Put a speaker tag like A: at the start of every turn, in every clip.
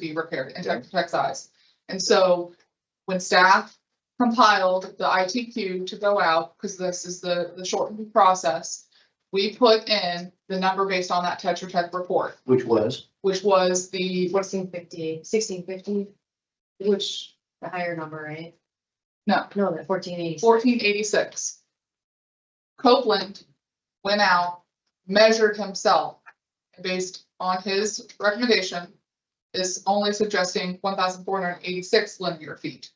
A: be repaired and tech, tech size. And so when staff compiled the ITQ to go out, because this is the, the shortened process, we put in the number based on that Tetra Tech report,
B: which was,
A: which was the,
C: Sixteen fifty, sixteen fifty,
A: which,
C: the higher number, right?
A: no,
C: No, the fourteen eighty.
A: fourteen eighty-six. Copeland went out, measured himself, and based on his recommendation, is only suggesting one thousand four hundred and eighty-six linear feet.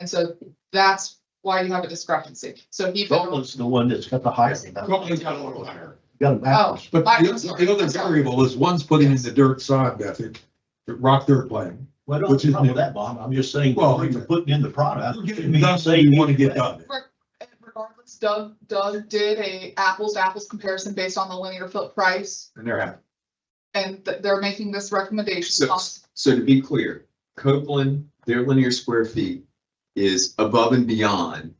A: And so that's why you have a discrepancy. So he.
B: Copeland's the one that's got the highest.
D: Copeland's got a little higher.
B: Got it backwards.
D: But
A: I-
D: the other- the other variable is one's putting in the dirt sod method, the rock dirt plan.
B: Well,
D: Which
B: don't
D: is
B: know
D: new.
B: that, Bob. I'm just saying,
D: Well,
B: when you're putting in the product.
D: You're
B: it
D: getting
B: means
D: done what
B: say
D: you want to get
B: anyway.
D: done.
A: And regardless, Doug, Doug did a apples to apples comparison based on the linear foot price,
D: And they're happy.
A: and th- they're making this recommendation.
E: So, so to be clear, Copeland, their linear square feet is above and beyond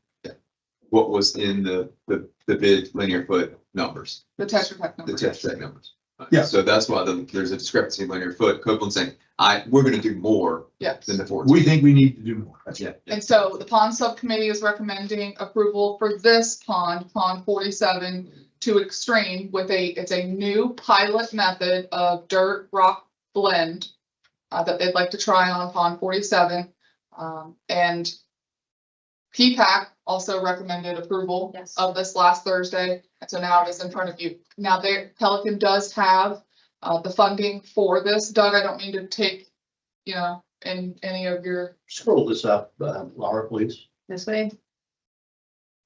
E: what was in the, the, the bid linear foot numbers,
A: The Tetra Tech
E: the
A: number.
E: test set numbers. Uh,
D: Yeah.
E: So that's why the- there's a discrepancy in linear foot. Copeland's saying, I, we're gonna do more
A: Yes.
E: than the fourteen.
D: We think we need to do more. That's
E: Yeah.
A: And so the pond subcommittee is recommending approval for this pond, pond forty-seven to extreme with a, it's a new pilot method of dirt rock blend uh, that they'd like to try on pond forty-seven. Um, and P-PAC also recommended approval
C: Yes.
A: of this last Thursday. And so now it is in front of you. Now there, Pelican does have uh, the funding for this. Doug, I don't mean to take, you know, in any of your
B: Scroll this up, uh, Laura, please.
C: This way?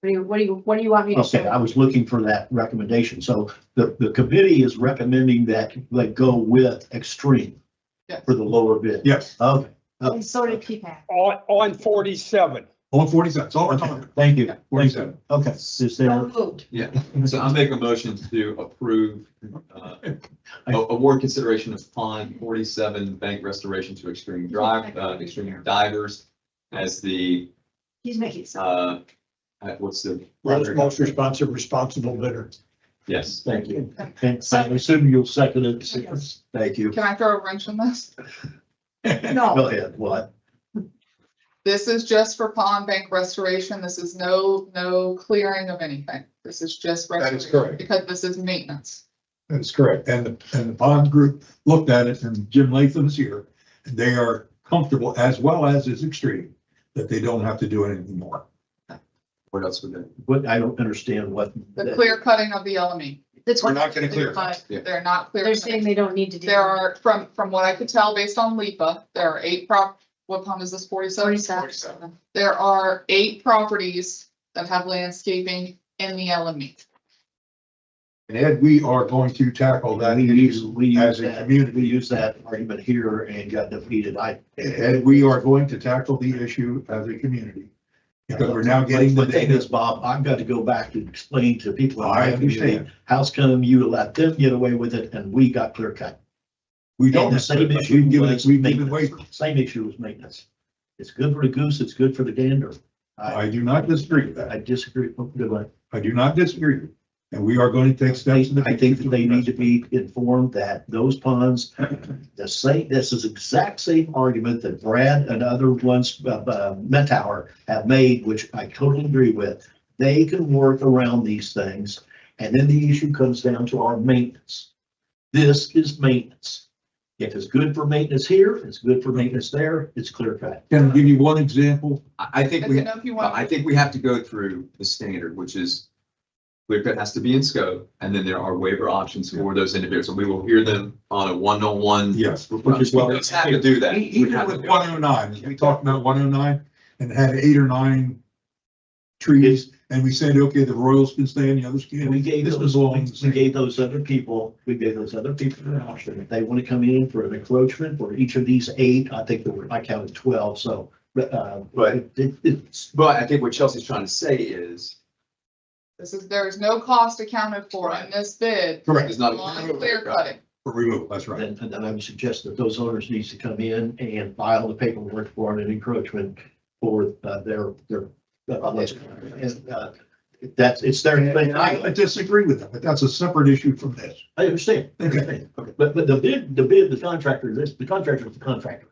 C: What do you, what do you, what do you want me to
B: Okay, I
C: show?
B: was looking for that recommendation. So the, the committee is recommending that they go with extreme
A: Yeah.
B: for the lower bid.
D: Yes,
B: Okay,
C: And so did P-PAC.
F: On, on forty-seven.
D: on forty-seven, that's all we're talking
B: okay,
D: about.
B: thank you.
D: Forty-seven.
B: Okay, is
C: So
B: there,
C: moved.
E: Yeah, so I'm making a motion to approve, uh, a- award consideration of pond forty-seven bank restoration to Extreme Drive, uh, Extreme Divers as the,
C: He's making some.
E: uh, uh, what's the?
G: Most responsive, responsible bidder.
E: Yes.
B: thank you. And I assume you'll second it. Thank you.
A: Can I throw a wrench in this?
C: No,
B: Go ahead, what?
A: This is just for pond bank restoration. This is no, no clearing of anything. This is just
D: That is
A: restoration
D: correct.
A: because this is maintenance.
D: That's correct. And the, and the bond group looked at it and Jim Latham is here. And they are comfortable as well as is extreme, that they don't have to do anything more.
E: What else would that?
B: What, I don't understand what.
A: The clear cutting of the LME.
C: that's
D: We're
C: what,
D: not gonna clear. it.
E: Yeah.
A: They're not clear.
C: they're saying they don't need to do.
A: There are, from, from what I could tell based on LIPA, there are eight prop, what pond is this, forty-seven?
C: Forty-seven.
A: There are eight properties that have landscaping in the LME.
D: And Ed, we are going to tackle that
B: We use,
D: issue
B: we use
D: as a
B: that,
D: community.
B: we use that argument here and got defeated. I.
D: And we are going to tackle the issue as a community. Because we're now getting the
B: But thing
D: data.
B: is, Bob, I've got to go back and explain to people. in
D: I
B: my community,
D: understand.
B: How's come you let them get away with it and we got clear cut?
D: We
B: And
D: don't.
B: the same issue
D: We've given,
B: was
D: we've given way.
B: maintenance. Same issue was maintenance. It's good for the goose, it's good for the gander. I,
D: I do not disagree with
B: I
D: that.
B: disagree. Good one.
D: I do not disagree. And we are going to take steps. in the
B: I think that
D: future
B: they need to
D: address
B: be informed that those ponds, the same, this is exact same argument that Brad and other ones, uh, uh, Metower have made, which I totally agree with. They can work around these things, and then the issue comes down to our maintenance. This is maintenance. If it's good for maintenance here, it's good for maintenance there, it's clear cut.
D: it. Can I give you one example?
E: I, I
A: I
E: think we,
A: don't know if you
E: Well, I
A: want,
E: think we have to go through the standard, which is clear cut has to be in scope, and then there are waiver options for those individuals, and we will hear them on a one-on-one.
D: Yes.
E: We
D: Which is what-
E: have to do that. We
D: Even
E: have to
D: with
E: do it.
D: one oh nine, we talked about one oh nine and had eight or nine trees. And we said, okay, the Royals can stay and the others
B: And
D: can.
B: we gave
D: This
B: those,
D: was all. in the
B: we
D: same-
B: gave those other people, we gave those other people an option. If they want to come in for an encroachment for each of these eight, I think there were, I counted twelve, so. But, uh,
E: Right.
B: it- it- it's,
E: But I think what Chelsea's trying to say is,
A: this is, there is no cost accounted for in this bid
D: Correct,
E: there's not.
A: on clear cutting.
D: for removal, that's right.
B: and, and I would suggest that those owners needs to come in and file the paperwork for an encroachment for, uh, their, their. uh, what's- And, uh, That's, it's their.
D: And I I disagree with that, but that's a separate issue from this.
B: I understand, I understand. But, but the bid, the bid, the contractor, this, the contractor is the contractor.